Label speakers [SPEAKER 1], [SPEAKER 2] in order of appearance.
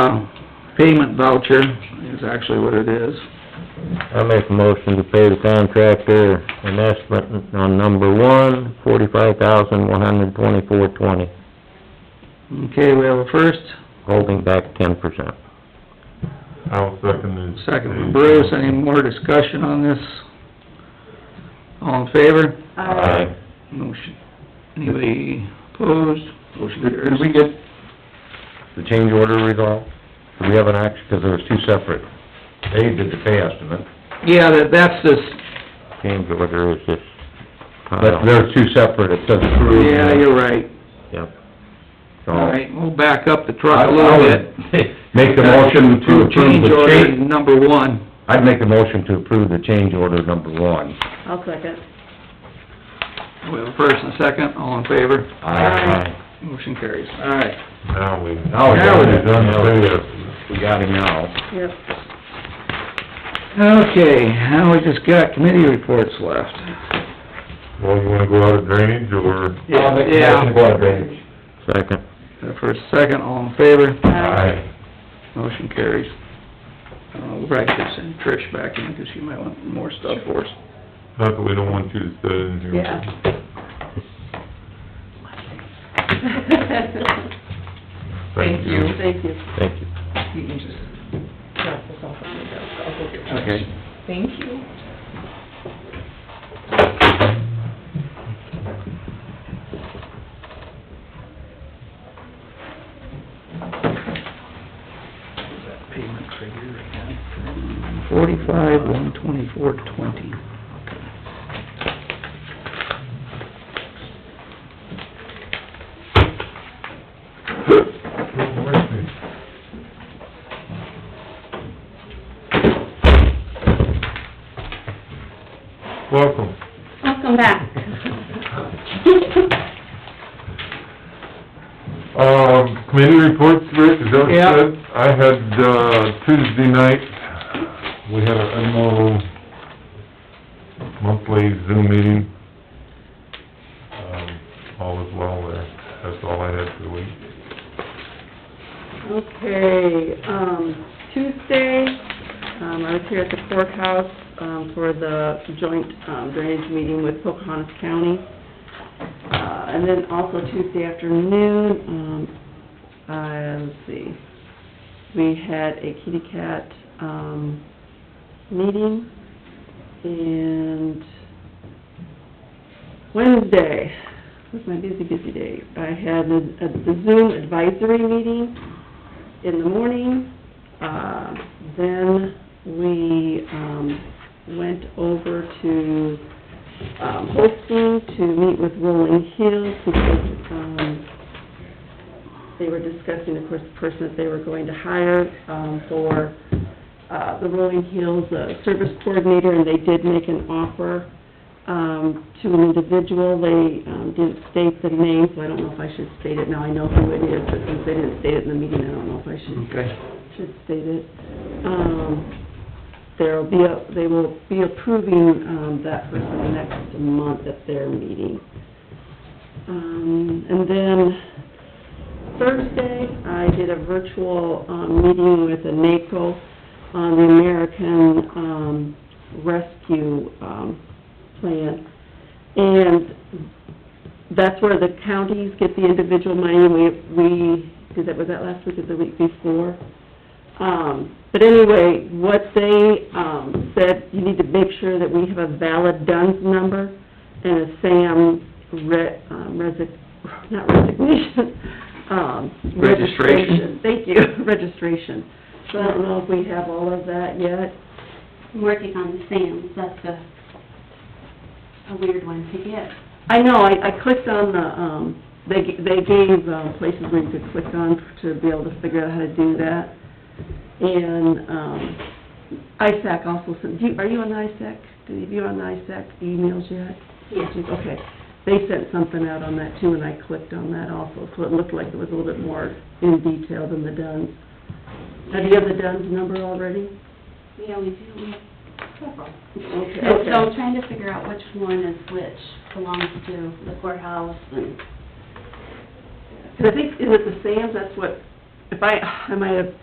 [SPEAKER 1] uh, payment voucher is actually what it is.
[SPEAKER 2] I make a motion to pay the contractor an estimate on number one, forty-five thousand, one hundred twenty-four twenty,
[SPEAKER 1] Okay, we have a first,
[SPEAKER 2] holding back ten percent.
[SPEAKER 3] I'll second the...
[SPEAKER 1] second from Bruce, any more discussion on this? All in favor? Motion, anybody opposed? Motion
[SPEAKER 2] Did
[SPEAKER 1] carries.
[SPEAKER 2] we get the change order resolved? Do we have an action, because there was two separate, they did the pay estimate.
[SPEAKER 1] Yeah, that, that's this,
[SPEAKER 2] Change order is this. But they're two separate, it doesn't prove.
[SPEAKER 1] yeah, you're right.
[SPEAKER 2] Yep. So,
[SPEAKER 1] All right, we'll back up the truck a little bit.
[SPEAKER 2] Make the motion to approve
[SPEAKER 1] Change
[SPEAKER 2] the
[SPEAKER 1] order
[SPEAKER 2] change,
[SPEAKER 1] number one.
[SPEAKER 2] I'd make the motion to approve the change order number one.
[SPEAKER 4] I'll second.
[SPEAKER 1] We have a first and a second, all in favor?
[SPEAKER 4] Aye.
[SPEAKER 1] Motion carries. All right.
[SPEAKER 3] Now we...
[SPEAKER 2] Now we got it.
[SPEAKER 3] Done the pay estimate.
[SPEAKER 2] We got it now.
[SPEAKER 4] Yep.
[SPEAKER 1] Okay, now we just got committee reports left.
[SPEAKER 3] Well, you wanna go out of drainage, or...
[SPEAKER 2] Second.
[SPEAKER 1] Got a First, second, all in favor?
[SPEAKER 3] Aye.
[SPEAKER 1] Motion carries. Uh, We'll probably just send Trish back in because she might want more stuff for us.
[SPEAKER 3] Not that we don't want you to sit in here.
[SPEAKER 4] Yeah.
[SPEAKER 3] Thank you.
[SPEAKER 4] Thank you.
[SPEAKER 2] Thank you.
[SPEAKER 5] You can just drop this off at my desk, I'll go get it.
[SPEAKER 1] Okay.
[SPEAKER 5] Thank you.
[SPEAKER 1] Payment figure again. Forty-five, one twenty-four, twenty.
[SPEAKER 3] Welcome.
[SPEAKER 4] Welcome back.
[SPEAKER 3] Um, committee reports, Rick, is that what you
[SPEAKER 1] Yeah.
[SPEAKER 3] said? I had, uh, Tuesday night, we had a annual monthly Zoom meeting. Um, all was well there. That's all I had for the week.
[SPEAKER 4] Okay, um, Tuesday, um, I was here at the courthouse, um, for the joint um, drainage meeting with Pocahontas County. Uh, and then also Tuesday afternoon, um, uh, let's see, we had a kitty cat, um, meeting. And Wednesday, was my busy, busy day, I had a- a- the Zoom advisory meeting in the morning. Uh, Then we um, went over to um, Holstein to meet with Rolling Hills because um, they were discussing, of course, the person that they were going to hire um, for uh, the Rolling Hills uh, Service Coordinator, and they did make an offer um, to an individual. They um, didn't state the name, so I don't know if I should state it now. I know who it is, but since they didn't state it in the meeting, I don't know if I should
[SPEAKER 1] Okay.
[SPEAKER 4] should state it. Um, there'll be, a they will be approving, um, that person next month at their meeting. Um, and then Thursday, I did a virtual, um, meeting with a NACO on the American, um, Rescue, um, Plan. And that's where the counties get the individual money, we, we, did that, was that last week or the week before? Um, but anyway, what they, um, said, you need to make sure that we have a valid DUNS number and a SAM re, um, resi, not resignation, um,
[SPEAKER 1] Registration.
[SPEAKER 4] registration. Thank you, registration. So I don't know if we have all of that yet.
[SPEAKER 6] I'm working on the SAMs, that's a, a weird one to get.
[SPEAKER 4] I know, I, I clicked on the, um, they, g- they gave uh, places where you could click on to be able to figure out how to do that. And, um, ISAC also sent, do you, are you on ISAC? Do you, have you on ISAC emails yet?
[SPEAKER 6] Yeah.
[SPEAKER 4] Okay, they sent something out on that too, and I clicked on that also, so it looked like it was a little bit more in detail than the DUNS. Have you have the DUNS number already?
[SPEAKER 6] Yeah, we do, we have several.
[SPEAKER 4] Okay.
[SPEAKER 6] And so I'm trying to figure out which one is which, belongs to the courthouse and,
[SPEAKER 4] Cause I think, is it the SAMs, that's what, if I, I might have